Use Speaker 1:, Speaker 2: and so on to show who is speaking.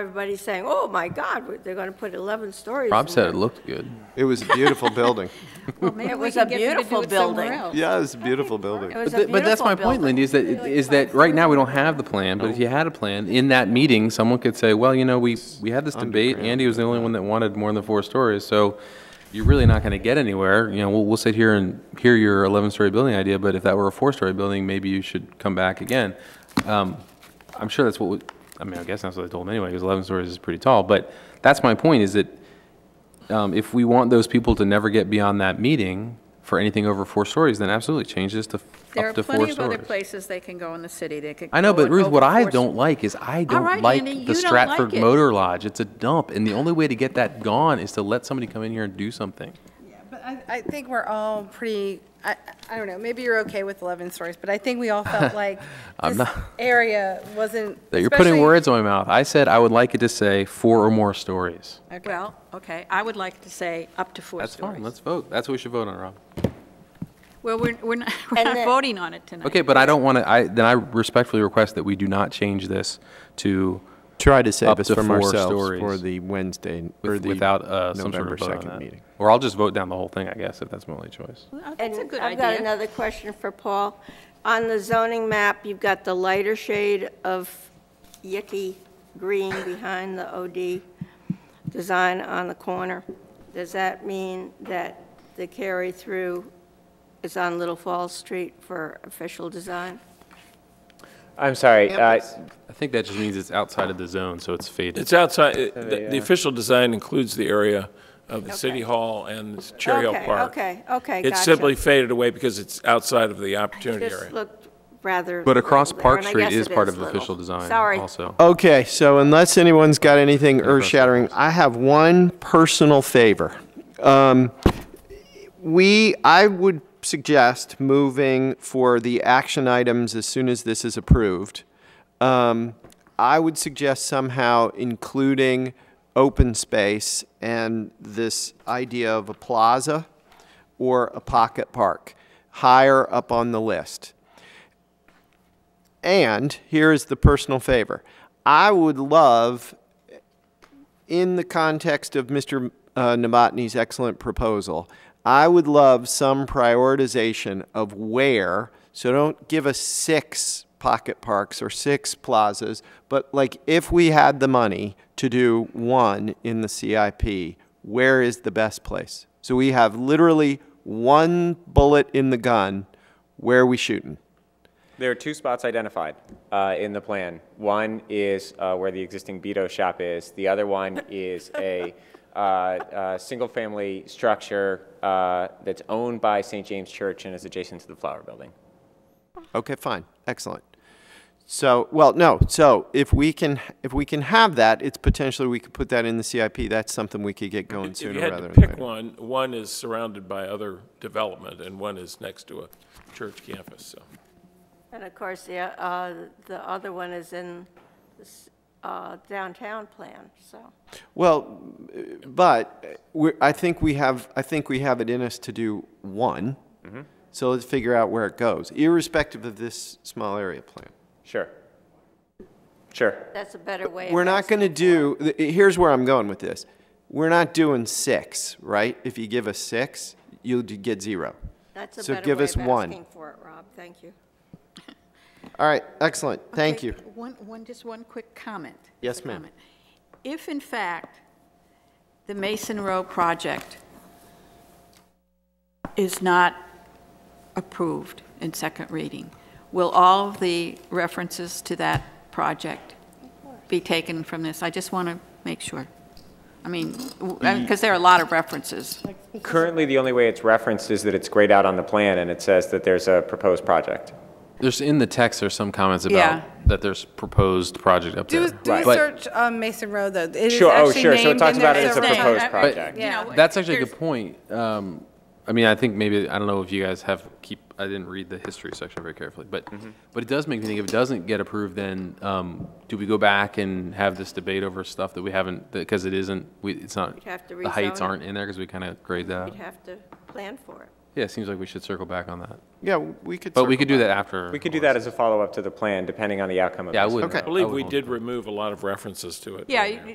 Speaker 1: Everybody's saying, oh my God, they're going to put 11 stories.
Speaker 2: Rob
Speaker 1: in
Speaker 2: said
Speaker 1: there."
Speaker 2: it looked good.
Speaker 3: It was a beautiful building.
Speaker 4: Well, maybe
Speaker 1: It
Speaker 4: we
Speaker 1: was
Speaker 4: can
Speaker 1: a
Speaker 4: get them to
Speaker 1: beautiful
Speaker 4: do it somewhere
Speaker 1: building.
Speaker 4: else.
Speaker 3: Yeah, it was a beautiful building.
Speaker 1: It was
Speaker 2: But,
Speaker 1: a
Speaker 2: th- but that's my
Speaker 1: beautiful
Speaker 2: point, Lindy, is that, is that right now we don't have the plan, but if you had a plan, in that meeting, someone could say, well, you know, we, we had this debate, Andy was the only one that wanted more than four stories, so you're really not gonna get anywhere, you know, we'll, we'll sit here and hear your eleven-story building idea, but if that were a four-story building, maybe you should come back again. Um, I'm sure that's what, we- I mean, I guess that's what I told him anyway, because eleven stories is pretty tall, but that's my point, is that um, if we want those people to never get beyond that meeting for anything over four stories, then absolutely change this to f-
Speaker 4: There
Speaker 2: up
Speaker 4: are
Speaker 2: to four
Speaker 4: plenty of other
Speaker 2: stories.
Speaker 4: places they can go in the city. They could.
Speaker 2: I know,
Speaker 4: go
Speaker 2: but
Speaker 4: and
Speaker 2: Ruth, what
Speaker 4: over
Speaker 2: I
Speaker 4: four-
Speaker 2: don't like is I don't
Speaker 4: right,
Speaker 2: like
Speaker 4: Andy, you
Speaker 2: the
Speaker 4: don't like
Speaker 2: Stratford
Speaker 4: it.
Speaker 2: Motor Lodge. It's a dump, and the only way to get that gone is to let somebody come in here and do something.
Speaker 5: But I, I think we're all pretty, I, I don't know, maybe you're okay with 11 stories, but I think we all felt like
Speaker 2: I'm
Speaker 5: this
Speaker 2: not-
Speaker 5: area wasn't.
Speaker 2: That you're putting
Speaker 5: especially-
Speaker 2: words in my mouth. I said I would like it to say four or more stories.
Speaker 4: Well, okay, I would like to say up to four
Speaker 2: That's
Speaker 4: stories.
Speaker 2: fine. Let's vote. That's what we should vote on, Rob.
Speaker 4: Well, we're, we're not, we're
Speaker 1: And
Speaker 4: not
Speaker 1: then-
Speaker 4: voting on it tonight.
Speaker 2: Okay, but I don't want to. I then I respectfully request that we do not change this to
Speaker 3: Try to
Speaker 2: Up
Speaker 3: save us
Speaker 2: to
Speaker 3: from
Speaker 2: four
Speaker 3: ourselves
Speaker 2: stories.
Speaker 3: for the Wednesday, or
Speaker 2: with-
Speaker 3: the
Speaker 2: without uh, some sort
Speaker 3: November
Speaker 2: of vote on
Speaker 3: 2nd
Speaker 2: that.
Speaker 3: meeting.
Speaker 2: Or I'll just vote down the whole thing, I guess, if that's my only choice.
Speaker 4: Well,
Speaker 1: And
Speaker 4: That's a good
Speaker 1: I've got
Speaker 4: idea.
Speaker 1: another question for Paul. On the zoning map, you've got the lighter shade of yucky green behind the OD design on the corner. Does that mean that the carry-through is on Little Falls Street for official design?
Speaker 6: I'm sorry,
Speaker 2: I
Speaker 6: uh,
Speaker 2: think that just means it's outside of the zone, so it's faded.
Speaker 7: It's outside, it- the
Speaker 3: uh,
Speaker 7: the official design includes the area of the City Hall and Cherry Hill
Speaker 1: Okay,
Speaker 7: Park.
Speaker 1: okay, okay,
Speaker 7: It's
Speaker 1: gotcha.
Speaker 7: simply faded away because it's outside of the opportunity area.
Speaker 1: Just looked rather.
Speaker 2: But across
Speaker 1: little there,
Speaker 2: Park
Speaker 1: and I
Speaker 2: Street
Speaker 1: guess
Speaker 2: is
Speaker 1: it
Speaker 2: part of
Speaker 1: little.
Speaker 2: official design
Speaker 1: Sorry.
Speaker 2: also.
Speaker 3: Okay, so unless anyone's got anything earth-shattering, I have one personal favor. Um, We, I would suggest moving for the action items as soon as this is approved. Um, I would suggest somehow including open space and this idea of a plaza or a pocket park higher up on the list. And here is the personal favor. I would love, in the context of Mr. uh, Novotny's excellent proposal, I would love some prioritization of where, so don't give us six pocket parks or six plazas, but like if we had the money to do one in the CIP, where is the best place? So we have literally one bullet in the gun. Where are we shooting?
Speaker 6: there are two spots identified uh, in the plan. One is uh, where the existing Beto shop is. The other one is a uh, uh, single-family structure uh, that's owned by St. James Church and is adjacent to the Flower Building.
Speaker 3: Okay, fine, excellent. So, well, no, so if we can, if we can have that, it's potentially, we could put that in the CIP, that's something we could get going
Speaker 7: If you
Speaker 3: sooner
Speaker 7: had to
Speaker 3: rather than
Speaker 7: pick
Speaker 3: later.
Speaker 7: one, one is surrounded by other development, and one is next to a church campus, so.
Speaker 1: And of course, the, uh, the other one is in this, uh, downtown plan, so.
Speaker 3: Well, uh, but, uh, we're, I think we have, I think we have it in us to do one.
Speaker 7: Mm-hmm.
Speaker 3: So let's figure out where it goes, irrespective of this small area plan.
Speaker 6: Sure. Sure.
Speaker 1: That's a better way. of
Speaker 3: We're not
Speaker 1: asking.
Speaker 3: gonna do, th- here's where I'm going with this. We're not doing six, right? If you give us six, you'll d- get zero.
Speaker 1: That's a
Speaker 3: so
Speaker 1: better
Speaker 3: give
Speaker 1: way
Speaker 3: us
Speaker 1: of
Speaker 3: one.
Speaker 1: asking for it, Rob. Thank you.
Speaker 3: All right, excellent, thank you.
Speaker 4: One, one, just one quick comment.
Speaker 3: Yes,
Speaker 4: Quick
Speaker 3: ma'am.
Speaker 4: comment. If in fact, the Mason Row project is not approved in second reading, will all of the references to that project be taken from this? I just want to make sure. I mean, because there are a lot of references.
Speaker 6: Currently, the only way it's referenced is that it's grayed out on the plan, and it says that there's a proposed project.
Speaker 2: There's, in the text, there's some comments
Speaker 4: Yeah.
Speaker 2: about that there's proposed project up
Speaker 5: Do,
Speaker 2: there.
Speaker 5: do
Speaker 2: But-
Speaker 5: search um, Mason Road, though. It is
Speaker 6: Sure, oh,
Speaker 5: actually
Speaker 6: sure, so it
Speaker 5: named
Speaker 6: talks
Speaker 5: in there
Speaker 6: about it as a
Speaker 5: several times.
Speaker 6: proposed
Speaker 4: I- I-
Speaker 6: project.
Speaker 4: you know,
Speaker 2: That's actually a
Speaker 4: there's-
Speaker 2: good point. Um, I mean, I think maybe, I don't know if you guys have, keep, I didn't read the history section very carefully, but,
Speaker 6: Mm-hmm.
Speaker 2: but it does make me think, if it doesn't get approved, then, um, do we go back and have this debate over stuff that we haven't, because it isn't, we, it's not,
Speaker 1: have to
Speaker 2: the heights
Speaker 1: rezone it.
Speaker 2: aren't in there, because we kind of grayed that out?
Speaker 1: You'd have to plan for it.
Speaker 2: Yeah, it seems like we should circle back on that.
Speaker 3: Yeah, we could.
Speaker 2: But we
Speaker 3: circle
Speaker 2: could do
Speaker 3: back.
Speaker 2: that after.
Speaker 6: We could do that as a follow-up to the plan, depending on the outcome of this.
Speaker 2: Yeah, I would.
Speaker 3: Okay.
Speaker 2: I
Speaker 7: I believe
Speaker 2: would
Speaker 7: we
Speaker 2: want-
Speaker 7: did remove a lot of references to it.
Speaker 4: Yeah,
Speaker 7: earlier.
Speaker 4: you-